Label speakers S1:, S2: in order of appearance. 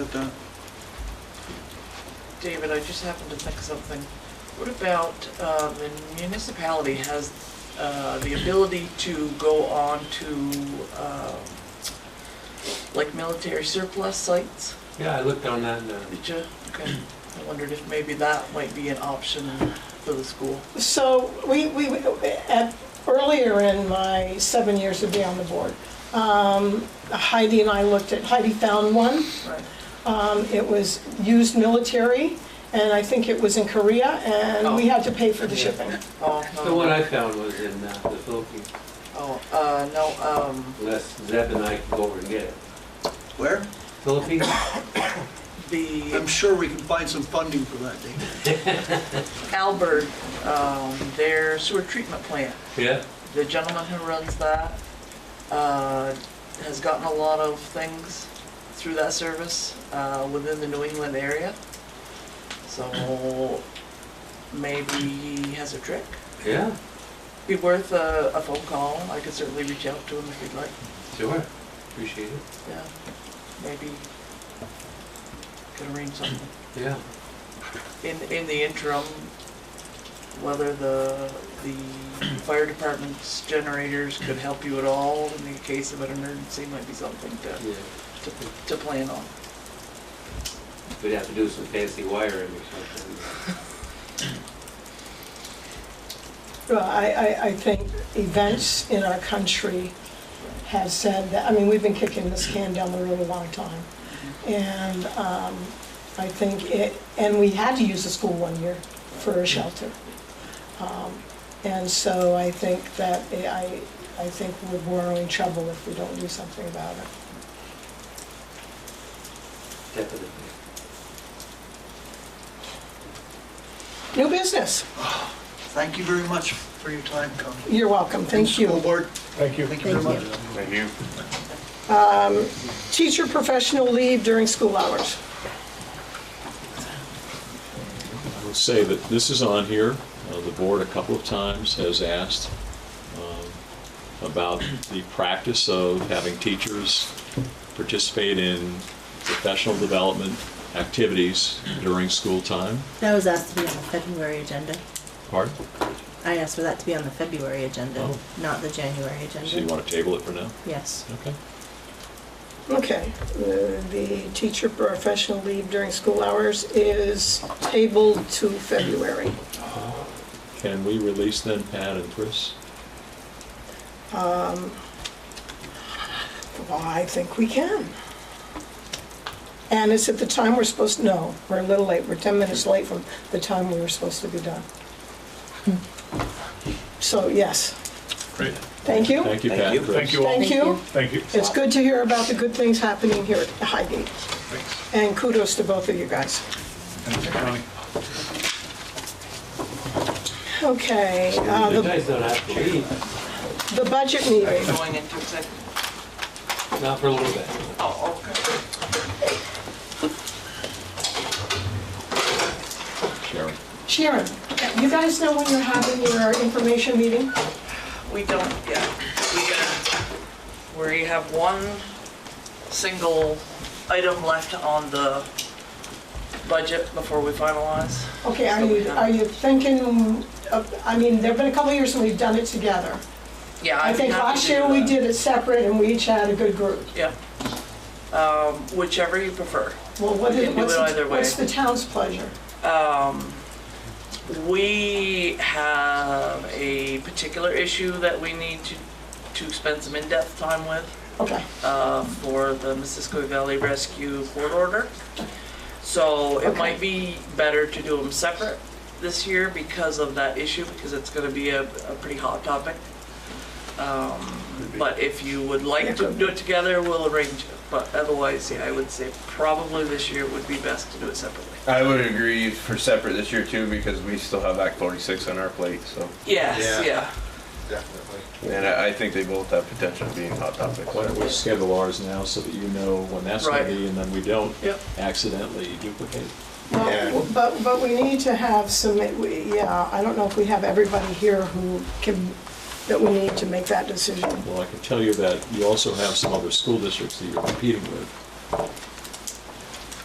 S1: it done?
S2: David, I just happened to think something. What about, uh, the municipality has uh, the ability to go on to, um, like military surplus sites?
S3: Yeah, I looked on that and, uh,
S2: Did you? Okay. I wondered if maybe that might be an option for the school.
S4: So we, we, at, earlier in my seven years of being on the board, um, Heidi and I looked at, Heidi found one.
S2: Right.
S4: Um, It was used military, and I think it was in Korea, and we had to pay for the shipping.
S2: Oh,
S3: the one
S2: no.
S3: I found was in uh, the Philippines,
S2: Oh, uh, no, um,
S3: unless Zeb and I can go over and get it.
S1: Where?
S3: Philippines?
S1: I'm
S2: the
S1: sure we can find some funding for that, David.
S2: Albert, um, their sewer treatment plant.
S3: Yeah,
S2: the gentleman who runs that uh, has gotten a lot of things through that service uh, within the New England area. So maybe he has a trick.
S3: yeah,
S2: Be worth a, a phone call. I could certainly reach out to him if you'd like.
S3: sure, appreciate it,
S2: Yeah, maybe could arrange something.
S3: yeah.
S2: In, in the interim, whether the, the fire department's generators could help you at all in the case of an emergency might be something to,
S3: yeah.
S2: to, to plan on.
S3: We'd have to do some fancy wiring or something.
S4: Well, I, I, I think events in our country have said that, I mean, we've been kicking this can down the road a long time. And um, I think it, and we had to use the school one year for a shelter. Um, And so I think that, eh, I, I think we're in trouble if we don't do something about it.
S3: Definitely.
S4: New business.
S1: Thank you very much for your time, Connie.
S4: You're welcome, thank
S1: School
S4: you.
S1: board. Thank you. Thank you very
S4: Thank
S1: much.
S5: Thank you.
S4: Teacher professional leave during school hours.
S6: I would say that this is on here. Uh, The board a couple of times has asked um, about the practice of having teachers participate in professional development activities during school time.
S7: That was asked to be on the February agenda.
S6: Pardon?
S7: I asked for that to be on the February agenda,
S6: Oh.
S7: not the January
S6: So you
S7: agenda.
S6: want to table it for now?
S7: Yes.
S6: Okay.
S4: Okay, the Uh, the teacher professional leave during school hours is tabled to February.
S6: Can we release then Pat and Chris?
S4: Well, I think we can. And it's at the time we're supposed, to. no, we're a little late, we're 10 minutes late from the time we were supposed to be done. So, yes,
S6: Great.
S4: thank you.
S6: Thank you, Pat and Chris. Thank you
S4: Thank you.
S8: Thank you.
S4: It's good to hear about the good things happening here at Highgate. And kudos to both of you guys. Okay, uh,
S3: You
S4: the
S3: guys don't have to leave,
S4: the budget meeting.
S2: Going into executive.
S3: not for a little bit.
S2: Oh, okay.
S6: Sharon.
S4: Sharon, you guys know when you're having your information meeting?
S2: We don't, yeah. We gotta, we have one single item left on the budget before we finalize.
S4: Okay, are you, are you thinking, of- I mean, there've been a couple of years when we've done it together.
S2: Yeah.
S4: I
S2: I'd be
S4: think
S2: happy
S4: last
S2: to
S4: year
S2: do
S4: we
S2: that.
S4: did it separate and we each had a good group.
S2: Yeah. Um, whichever you prefer.
S4: Well, what
S2: We
S4: is,
S2: can do
S4: what's,
S2: it
S4: the-
S2: either way.
S4: what's the town's pleasure?
S2: Um, we have a particular issue that we need to, to spend some in-depth time with,
S4: Okay,
S2: uh, for the Missisquoi Valley Rescue Court Order. So it
S4: Okay.
S2: might be better to do them separate this year because of that issue, because it's gonna be a, a pretty hot topic. Um, but if you would like to do it together, we'll arrange it, but otherwise, yeah, I would say probably this year would be best to do it separately.
S5: I would agree for separate this year too, because we still have Act forty-six on our plate, so.
S2: Yes, yeah.
S5: And I, I think they both have potential of being hot topics.
S6: Why don't we schedule ours now so that you know when that's going
S2: Right.
S6: to be and then we don't
S2: Yep.
S6: accidentally duplicate?
S4: well, but, but we need to have some, we- yeah, I don't know if we have everybody here who can, that we need to make that decision.
S6: Well, I can tell you that you also have some other school districts that you're competing with.